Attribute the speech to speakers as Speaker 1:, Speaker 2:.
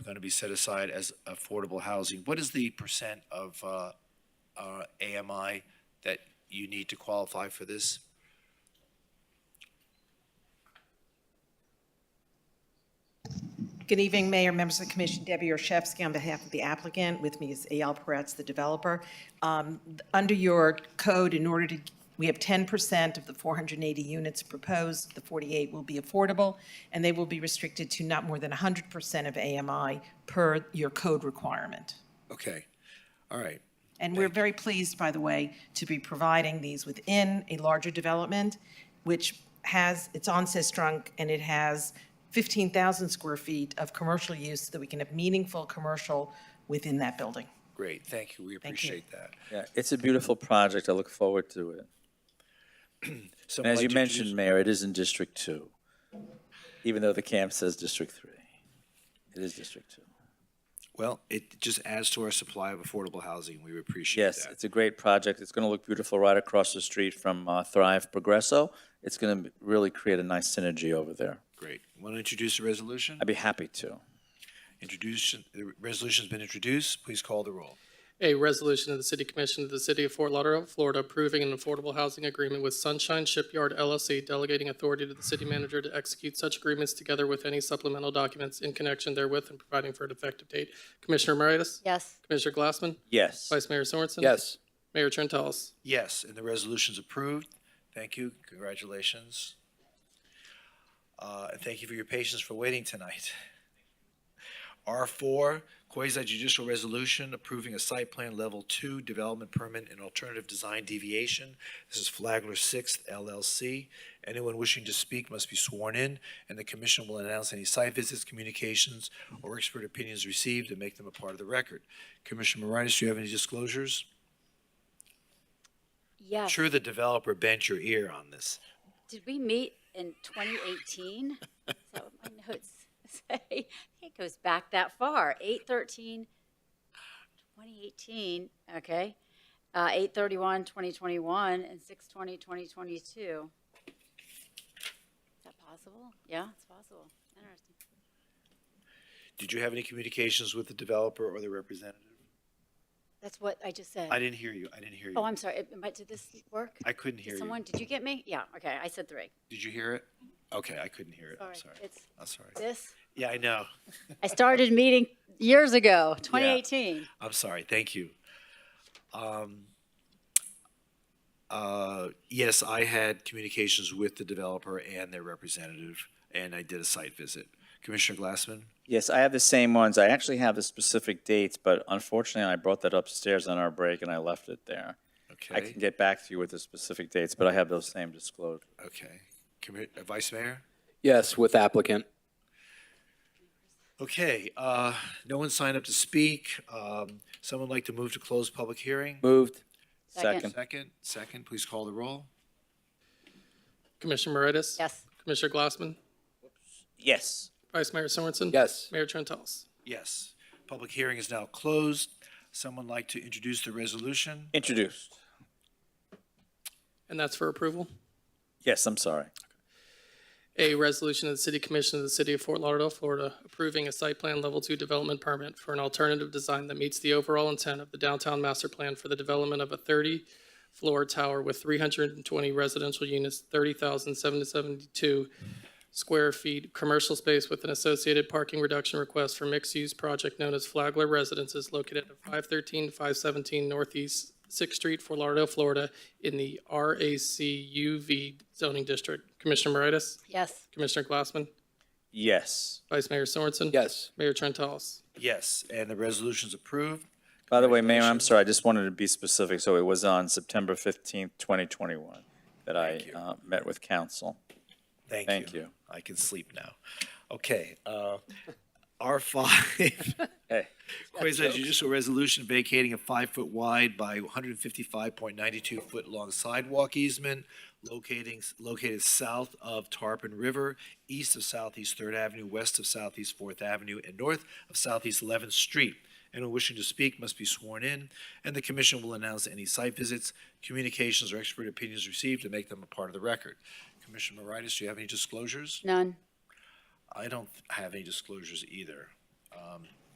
Speaker 1: going to be set aside as affordable housing. What is the percent of uh, uh, AMI that you need to qualify for this?
Speaker 2: Good evening, Mayor, members of the commission. Debbie Orshevsky on behalf of the applicant. With me is Eyal Peretz, the developer. Um, Under your code, in order to, we have 10% of the 480 units proposed, the 48 will be affordable, and they will be restricted to not more than 100% of AMI per your code requirement.
Speaker 1: Okay, all right.
Speaker 2: And we're very pleased, by the way, to be providing these within a larger development, which has, it's on Sistrunk, and it has 15,000 square feet of commercial use, so that we can have meaningful commercial within that building.
Speaker 1: Great, thank you, we appreciate that.
Speaker 3: Yeah, it's a beautiful project. I look forward to it.
Speaker 1: So
Speaker 3: And as
Speaker 1: I'd like to
Speaker 3: you
Speaker 1: introduce-
Speaker 3: mentioned, Mayor, it is in District Two, even though the camp says District Three. It is District Two.
Speaker 1: Well, it just adds to our supply of affordable housing, we appreciate that.
Speaker 3: Yes, it's a great project. It's going to look beautiful right across the street from uh, Thrive Progresso. It's going to really create a nice synergy over there.
Speaker 1: Great. Want to introduce the resolution?
Speaker 3: I'd be happy to.
Speaker 1: Introduce, the resolution's been introduced, please call the roll.
Speaker 4: A resolution of the City Commission of the City of Fort Lauderdale, Florida, approving an affordable housing agreement with Sunshine Shipyard LLC, delegating authority to the city manager to execute such agreements together with any supplemental documents in connection therewith and providing for an effective date. Commissioner Moritas?
Speaker 5: Yes.
Speaker 4: Commissioner Glassman?
Speaker 3: Yes.
Speaker 4: Vice Mayor Sorensen?
Speaker 3: Yes.
Speaker 4: Mayor Trentalles?
Speaker 1: Yes, and the resolution's approved. Thank you, congratulations. Uh, and thank you for your patience for waiting tonight. R four, quasi judicial resolution approving a site plan level two development permit and alternative design deviation. This is Flagler Sixth LLC. Anyone wishing to speak must be sworn in, and the commission will announce any site visits, communications, or expert opinions received and make them a part of the record. Commissioner Moritas, do you have any disclosures?
Speaker 5: Yes.
Speaker 1: sure the developer bent your ear on this.
Speaker 5: Did we meet in 2018? Is that what my notes say? It goes back that far. 813, 2018, okay. Uh, 831, 2021, and 620, 2022. Is that possible? Yeah, it's possible. Interesting.
Speaker 1: Did you have any communications with the developer or the representative?
Speaker 5: That's what I just said.
Speaker 1: I didn't hear you. I didn't hear
Speaker 5: Oh,
Speaker 1: you.
Speaker 5: I'm sorry. It- am I- Did this work?
Speaker 1: I couldn't
Speaker 5: Did
Speaker 1: hear you.
Speaker 5: Someone, did you get me? Yeah, okay. I said three.
Speaker 1: Did you hear it? Okay, I couldn't hear it. I'm
Speaker 5: Sorry.
Speaker 1: sorry.
Speaker 5: It's
Speaker 1: I'm sorry.
Speaker 5: this.
Speaker 1: Yeah, I know.
Speaker 5: I started meeting years ago, 2018.
Speaker 1: I'm sorry. Thank you. Um, uh, yes, I had communications with the developer and their representative, and I did a site visit. Commissioner Glassman?
Speaker 3: Yes, I have the same ones. I actually have the specific dates, but unfortunately, I brought that upstairs on our break and I left it there. I
Speaker 1: Okay,
Speaker 3: can get back to you with the specific dates, but I have those same disclosures.
Speaker 1: okay. Commi- uh, Vice Mayor?
Speaker 6: Yes, with applicant.
Speaker 1: Okay, uh, no one signed up to speak. Um, someone like to move to close public hearing?
Speaker 6: Moved.
Speaker 5: Second.
Speaker 3: Second.
Speaker 1: Second, second, please call the roll.
Speaker 4: Commissioner Moritas?
Speaker 5: Yes.
Speaker 4: Commissioner Glassman?
Speaker 3: Yes.
Speaker 4: Vice Mayor Sorensen?
Speaker 6: Yes.
Speaker 4: Mayor Trentalles?
Speaker 1: Yes, public hearing is now closed. Someone like to introduce the resolution?
Speaker 3: Introduced.
Speaker 4: And that's for approval?
Speaker 3: Yes, I'm sorry.
Speaker 4: A resolution of the City Commission of the City of Fort Lauderdale, Florida, approving a site plan level two development permit for an alternative design that meets the overall intent of the downtown master plan for the development of a thirty-floor tower with three hundred and twenty residential units, thirty thousand seven hundred seventy-two square feet, commercial space with an associated parking reduction request for mixed-use project known as Flagler Residences located at 513, 517 Northeast Sixth Street, Fort Lauderdale, Florida, in the RACUV zoning district. Commissioner Moritas?
Speaker 5: Yes.
Speaker 4: Commissioner Glassman,
Speaker 3: Yes.
Speaker 4: Vice Mayor Sorensen.
Speaker 6: Yes.
Speaker 4: Mayor Trentalles.
Speaker 1: Yes, and the resolution's approved.
Speaker 3: By the way, Mayor, I'm sorry, I just wanted to be specific. So it was on September 15th, 2021 that I uh, met with council.
Speaker 1: Thank you.
Speaker 3: Thank you.
Speaker 1: I can sleep now. Okay, uh, R five,
Speaker 3: Hey,
Speaker 1: quasi judicial resolution vacating a five-foot wide by one hundred and fifty-five point ninety-two foot long sidewalk easement locating, located south of Tarpon River, east of Southeast Third Avenue, west of Southeast Fourth Avenue, and north of Southeast Eleventh Street. Anyone wishing to speak must be sworn in, and the commission will announce any site visits, communications, or expert opinions received and make them a part of the record. Commissioner Moritas, do you have any disclosures?
Speaker 5: None.
Speaker 1: I don't have any disclosures either. Um,